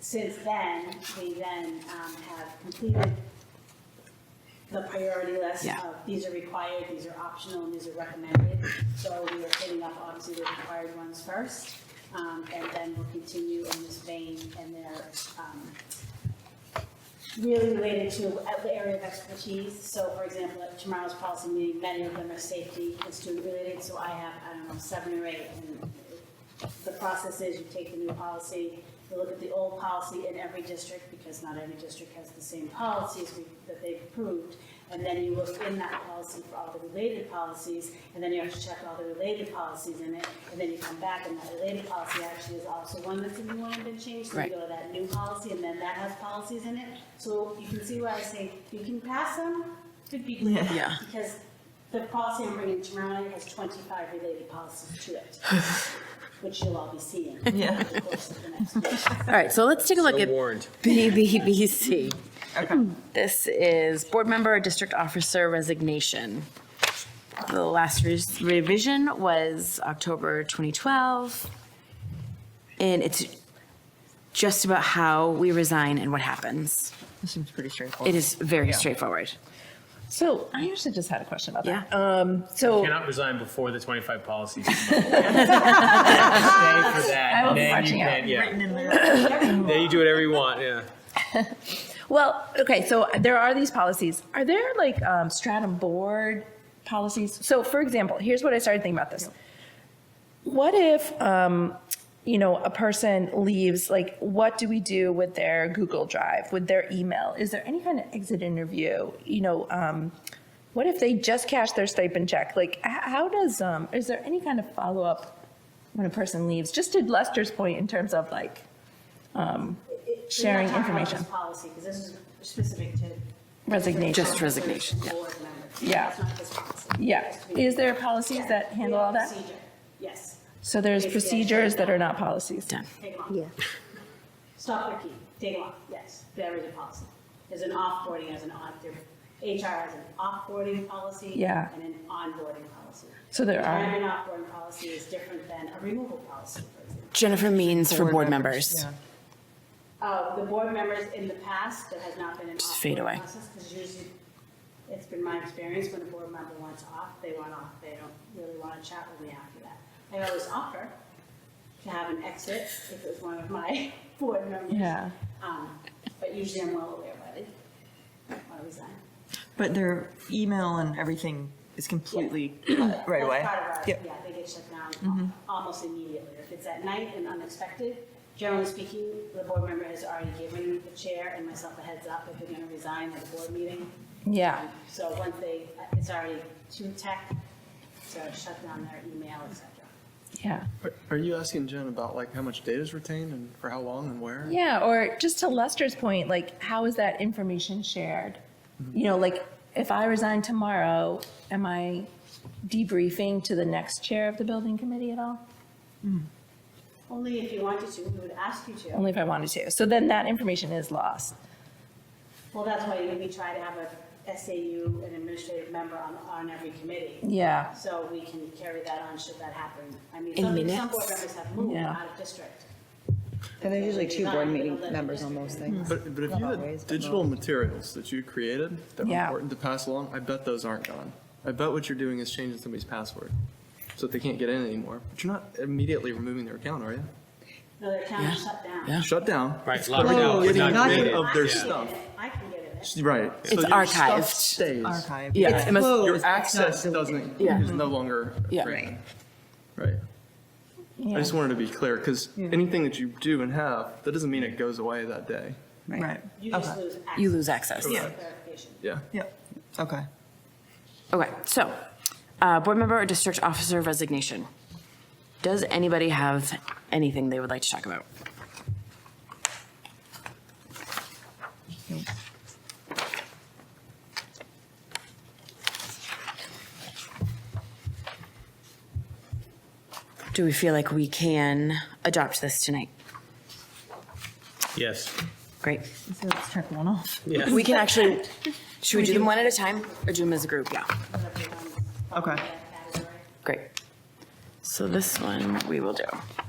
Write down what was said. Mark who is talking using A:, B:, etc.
A: since then, we then um, have completed the priority list
B: Yeah.
A: of these are required, these are optional, and these are recommended. So we are hitting up obviously the required ones first, um, and then we'll continue in this vein, and they're um, really related to the area of expertise. So for example, at tomorrow's policy meeting, many of them are safety and student related, so I have, I don't know, seven or eight. And The process is you take the new policy, you look at the old policy in every district, because not every district has the same policies we- that they've approved. And then you look in that policy for all the related policies, and then you have to check all the related policies in it. And then you come back and that related policy actually is also one that's in the one that's been changed. So you
B: Right.
A: go to that new policy and then that has policies in it. So you can see why I say you can pass them, could be.
B: Yeah.
A: Because the policy I'm bringing tomorrow has twenty-five related policies to it, which you'll all be seeing. Yeah. Over the course of the next week.
B: All right, so let's take a look at
C: warned.
B: BBBC. This is board member or district officer resignation. The last res- revision was October 2012. And it's just about how we resign and what happens.
D: This seems pretty straightforward.
B: It is very straightforward.
D: So I actually just had a question about
B: Yeah.
D: that. Um, so
C: Cannot resign before the 25 policies. Stay for that.
D: I will be
C: then
D: watching
C: you
D: out.
C: can, yeah. Then you do whatever you want, yeah.
D: well, okay. So there are these policies. Are there like um, stratum board policies? So for example, here's what I started thinking about this. What if um, you know a person leaves? Like, what do we do with their Google Drive, with their email? Is there any kind of exit interview? You know. Um, what if they just cash their stipend check? Like, h- how does um, is there any kind of follow up when a person leaves? Just to Lester's point, in terms of like, Sharing
A: We're not talking about this
D: information.
A: Policy, because this is specific to.
D: Resignation.
B: Just resignation, yeah.
A: Board members.
D: Yeah.
A: That's not this policy.
D: Yeah. Is there policies
A: Yeah.
D: that handle all that?
A: Procedure. Yes,
D: So there's procedures that are not policies.
B: Done.
A: take them off. Yeah. Stop their key, take them off, yes, there is a policy. There's an offboarding, there's an on, there- HR has an offboarding policy.
D: Yeah.
A: And an onboarding policy.
D: So there are-
A: Retirement offboarding policy is different than a removal policy, for example.
B: Jennifer means for board members.
A: Uh, the board members in the past, there has not been an
B: Just fade
A: off-board
B: away.
A: process, because usually, it's been my experience, when a board member wants off, they want off, they don't really want to chat with me after that. I always offer to have an exit if it was one of my board members.
D: Yeah.
A: Um, but usually I'm well aware of it, I resign.
E: But their email and everything is completely uh, right away.
A: That's part of our,
E: Yep. Mm-hmm.
A: yeah, they get shut down almost immediately. If it's at night and unexpected, generally speaking, the board member has already given the chair and myself a heads up if they're gonna resign at the board meeting. Um,
D: Yeah.
A: So once they, it's already too tech, so shut down their email, et cetera.
D: Yeah.
F: Are- Are you asking Jen about like how much data is retained and for how long and where?
D: Yeah. Or just to Lester's point, like, how is that information shared? You know, like, if I resign tomorrow, am I debriefing to the next chair of the building committee at all?
A: Only if you wanted to, we would ask you to.
E: Mm-hmm.
D: Only if I wanted to. So then that information is lost.
A: Well, that's why we try to have a SAU, an administrative member on, on every committee.
D: Yeah.
A: So we can carry that on should that happen. I mean,
B: In
A: some, some board
B: minutes?
A: members have moved
D: Yeah.
A: out of district.
G: And there's usually two board meeting members on most
A: almost.
G: things.
F: But, but if you
G: always,
F: had
G: but
F: digital materials that you created that were
D: Yeah.
F: important to pass along, I bet those aren't gone. I bet what you're doing is changing somebody's password so that they can't get in anymore. But you're not immediately removing their account, are you?
A: No, their account is shut down.
B: Yeah.
F: Shut down.
C: Right,
F: It's
C: locked down,
F: Getting
C: not
F: rid
C: created.
F: of their
A: I can get
F: stuff.
A: in it. I can get in it.
F: Right. So
B: It's
F: your stuff
B: archived.
F: Stays.
E: Archived.
B: Yeah,
E: It's
B: it must-
E: closed,
F: Your
E: it's not
F: access
E: deleted.
F: doesn't,
B: Yeah.
F: is no longer.
B: Yeah.
F: granted. Right. I
D: Yeah.
F: just wanted to be clear because anything that you do and have, that doesn't mean it goes away that day.
E: Right,
A: You just
E: okay,
A: lose access.
B: You lose access.
A: That's the clarification.
F: Yeah.
E: yep, okay.
B: Okay, so, uh, board member or district officer resignation. Does anybody have anything they would like to talk about? Do we feel like we can adopt this tonight?
C: Yes.
B: Great.
E: So let's check one off.
C: Yes.
B: We can actually, should we do them one at a time or do them as a group? Yeah.
A: Whatever you want.
E: Okay.
A: That category.
B: Great. So this one we will do.